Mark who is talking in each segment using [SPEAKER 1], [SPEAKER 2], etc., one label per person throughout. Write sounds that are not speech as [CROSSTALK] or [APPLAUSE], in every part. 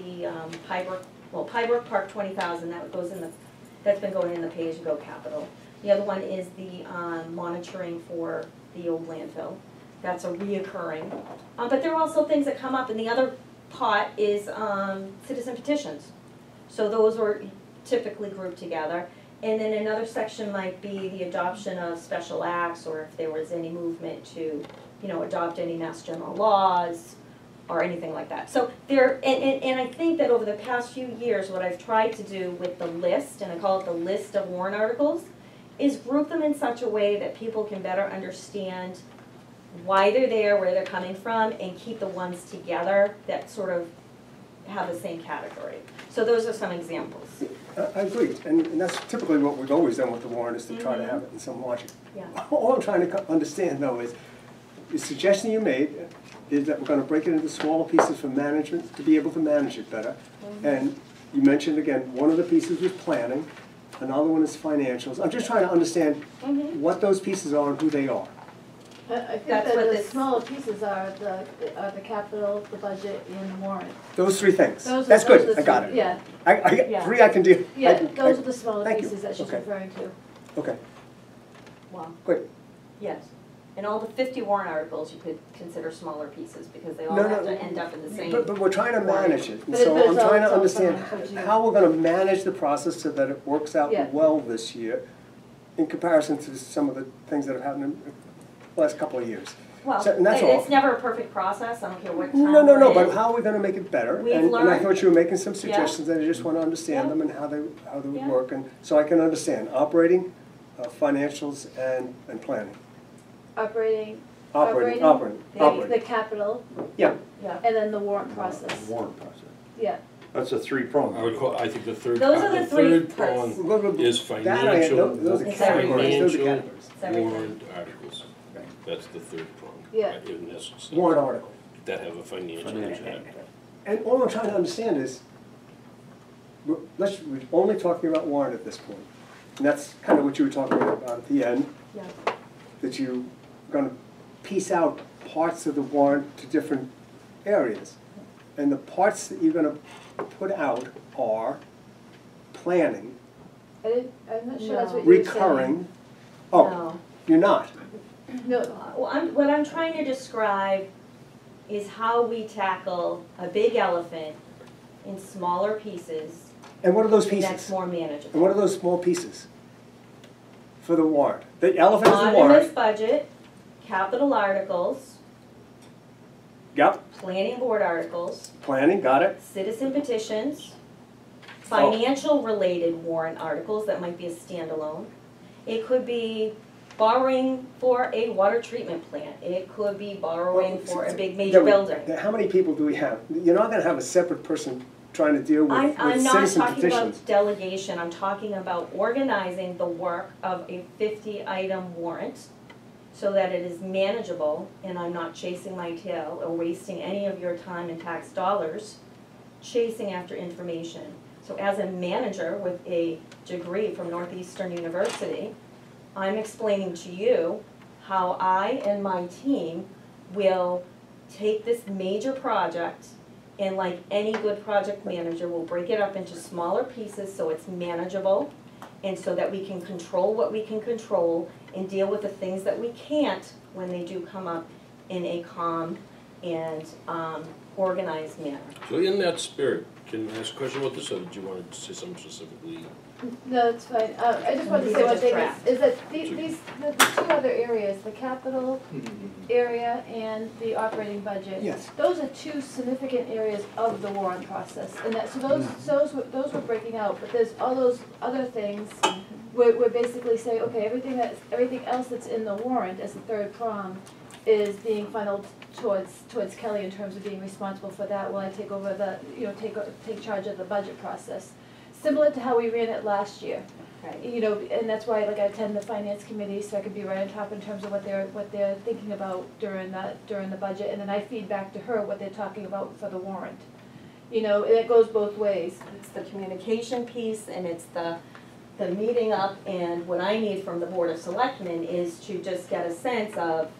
[SPEAKER 1] um, Pybrook, well, Pybrook Park twenty thousand, that goes in the, that's been going in the pay as you go capital. The other one is the, um, monitoring for the old landfill, that's a reoccurring. Uh, but there are also things that come up, and the other pot is, um, citizen petitions. So those are typically grouped together. And then another section might be the adoption of special acts, or if there was any movement to, you know, adopt any mass general laws or anything like that. So there, and, and, and I think that over the past few years, what I've tried to do with the list, and I call it the list of warrant articles, is group them in such a way that people can better understand why they're there, where they're coming from, and keep the ones together that sort of have the same category. So those are some examples,
[SPEAKER 2] I I agree, and and that's typically what we've always done with the warrant, is to try
[SPEAKER 3] Mm-hmm.
[SPEAKER 2] to have it in some logic. [LAUGHS]
[SPEAKER 1] yeah.
[SPEAKER 2] All I'm trying to co- understand though is, the suggestion you made uh, is that we're gonna break it into smaller pieces for management, to be able to manage it better.
[SPEAKER 3] Mm-hmm.
[SPEAKER 2] And you mentioned again, one of the pieces was planning, another one is financials. I'm just trying to understand
[SPEAKER 3] Mm-hmm.
[SPEAKER 1] Mhm.
[SPEAKER 2] what those pieces are and who they are.
[SPEAKER 3] I I think
[SPEAKER 1] That's
[SPEAKER 3] that
[SPEAKER 1] what
[SPEAKER 3] the
[SPEAKER 1] this-
[SPEAKER 3] smaller pieces are the, are the capital, the budget, and the warrant.
[SPEAKER 2] Those three things.
[SPEAKER 3] Those are-
[SPEAKER 2] That's
[SPEAKER 3] those are
[SPEAKER 2] good,
[SPEAKER 3] the
[SPEAKER 2] I got
[SPEAKER 3] three-
[SPEAKER 2] it.
[SPEAKER 3] Yeah,
[SPEAKER 2] I, I,
[SPEAKER 1] Yeah.
[SPEAKER 2] three I can do.
[SPEAKER 3] yeah, those are the smaller
[SPEAKER 2] thank you.
[SPEAKER 3] pieces that she's
[SPEAKER 2] Okay.
[SPEAKER 3] referring to.
[SPEAKER 2] Okay,
[SPEAKER 1] Wow.
[SPEAKER 2] great.
[SPEAKER 1] Yes, and all the fifty warrant articles you could consider smaller pieces, because they all
[SPEAKER 2] No,
[SPEAKER 1] have
[SPEAKER 2] no,
[SPEAKER 1] to end up in the same.
[SPEAKER 2] But, but we're trying to
[SPEAKER 1] Right.
[SPEAKER 2] manage it, and
[SPEAKER 3] But it- but
[SPEAKER 2] so
[SPEAKER 3] it's
[SPEAKER 2] I'm
[SPEAKER 3] all-
[SPEAKER 2] trying to
[SPEAKER 3] it's all
[SPEAKER 2] understand
[SPEAKER 3] financial, yeah.
[SPEAKER 2] how we're gonna manage the process so that it works out
[SPEAKER 3] Yeah.
[SPEAKER 2] well this year in comparison to some of the things that have happened in the last couple of years.
[SPEAKER 1] Well,
[SPEAKER 2] So- and that's
[SPEAKER 1] it- it's
[SPEAKER 2] all.
[SPEAKER 1] never a perfect process, I don't care what time
[SPEAKER 2] No, no,
[SPEAKER 1] we're
[SPEAKER 2] no,
[SPEAKER 1] in.
[SPEAKER 2] but how are we gonna make it better?
[SPEAKER 1] We've
[SPEAKER 2] And, and I
[SPEAKER 1] learned.
[SPEAKER 2] thought you were making some
[SPEAKER 1] Yeah.
[SPEAKER 2] suggestions, and I just wanna understand
[SPEAKER 1] Yeah.
[SPEAKER 2] them and how they, how they would
[SPEAKER 1] Yeah.
[SPEAKER 2] work, and so I can understand operating, uh, financials, and, and planning.
[SPEAKER 3] Operating,
[SPEAKER 2] Operating,
[SPEAKER 3] Operating.
[SPEAKER 2] operating,
[SPEAKER 1] Yeah.
[SPEAKER 3] the,
[SPEAKER 2] operating,
[SPEAKER 3] the capital,
[SPEAKER 2] yeah,
[SPEAKER 1] Yeah,
[SPEAKER 3] and then the warrant process,
[SPEAKER 4] Warrant process.
[SPEAKER 3] yeah.
[SPEAKER 4] That's a three-prong.
[SPEAKER 5] I would call, I think the third,
[SPEAKER 1] Those are
[SPEAKER 5] the
[SPEAKER 1] the three
[SPEAKER 5] third
[SPEAKER 1] parts.
[SPEAKER 5] prong
[SPEAKER 2] Well, well,
[SPEAKER 5] is
[SPEAKER 2] that I-
[SPEAKER 5] financial,
[SPEAKER 2] those- those are
[SPEAKER 1] It's everything.
[SPEAKER 2] categories, those are
[SPEAKER 5] Financial.
[SPEAKER 2] categories.
[SPEAKER 1] it's everything.
[SPEAKER 5] warrant articles. That's the third prong.
[SPEAKER 3] Yeah.
[SPEAKER 5] In essence.
[SPEAKER 2] Warrant article.
[SPEAKER 5] That have a financial
[SPEAKER 4] Financial.
[SPEAKER 5] impact.
[SPEAKER 2] And all I'm trying to understand is, we're- let's, we're only talking about warrant at this point. And that's kind of what you were talking about at the end,
[SPEAKER 1] yeah,
[SPEAKER 2] that you're gonna piece out parts of the warrant to different areas. And the parts that you're gonna put out are planning,
[SPEAKER 3] I didn't, I'm not sure that's
[SPEAKER 1] No.
[SPEAKER 3] what you were saying.
[SPEAKER 2] recurring. Oh,
[SPEAKER 1] no.
[SPEAKER 2] you're not,
[SPEAKER 3] No,
[SPEAKER 1] Well, I'm, what I'm trying to describe is how we tackle a big elephant in smaller pieces
[SPEAKER 2] and what are those
[SPEAKER 1] that's
[SPEAKER 2] pieces?
[SPEAKER 1] more
[SPEAKER 2] And what
[SPEAKER 1] manageable.
[SPEAKER 2] are those small pieces for the warrant? The elephant is the
[SPEAKER 1] Omnibus
[SPEAKER 2] warrant,
[SPEAKER 1] budget, capital articles,
[SPEAKER 2] yep,
[SPEAKER 1] planning board articles,
[SPEAKER 2] planning, got it,
[SPEAKER 1] citizen petitions,
[SPEAKER 2] Oh.
[SPEAKER 1] financial-related warrant articles, that might be a standalone. It could be borrowing for a water treatment plant, it could be borrowing for
[SPEAKER 2] Well,
[SPEAKER 1] a big
[SPEAKER 2] Yeah,
[SPEAKER 1] major
[SPEAKER 2] we-
[SPEAKER 1] building.
[SPEAKER 2] yeah, How many people do we have? You're not gonna have a separate person trying to deal
[SPEAKER 1] I'm,
[SPEAKER 2] with, with
[SPEAKER 1] I'm not
[SPEAKER 2] citizen
[SPEAKER 1] talking
[SPEAKER 2] petitions.
[SPEAKER 1] about delegation, I'm talking about organizing the work of a fifty-item warrant so that it is manageable and I'm not chasing my tail or wasting any of your time and tax dollars chasing after information. So as a manager with a degree from Northeastern University, I'm explaining to you how I and my team will take this major project and like any good project manager, we'll break it up into smaller pieces so it's manageable and so that we can control what we can control and deal with the things that we can't when they do come up in a calm and um, organized manner.
[SPEAKER 5] So in that spirit, can I ask a question about this, or did you want to say something specifically?
[SPEAKER 3] No, it's fine. Uh, I just wanted to
[SPEAKER 1] These
[SPEAKER 3] say
[SPEAKER 1] are
[SPEAKER 3] one
[SPEAKER 1] just
[SPEAKER 3] thing,
[SPEAKER 1] draft.
[SPEAKER 3] is, is that the- these, the the two other areas, the capital area and the operating budget.
[SPEAKER 2] Yes.
[SPEAKER 3] Those are two significant areas of the warrant process, and that, so those, those, were- those we're breaking out, but there's all those other things where, where basically say, okay, everything that's, everything else that's in the warrant as the third prong is being funneled towards, towards Kelly in terms of being responsible for that while I take over the, you know, take, o- take charge of the budget process. Similar to how we ran it last year
[SPEAKER 1] Right.
[SPEAKER 3] you know, and that's why, like, I attend the finance committee, so I could be right on top in terms of what they're, what they're thinking about during the, during the budget, and then I feed back to her what they're talking about for the warrant. You know, and it goes both ways.
[SPEAKER 1] It's the communication piece and it's the, the meeting up and what I need from the Board of Selectmen is to just get a sense of,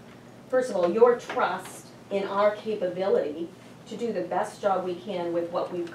[SPEAKER 1] first of all, your trust in our capability to do the best job we can with what we've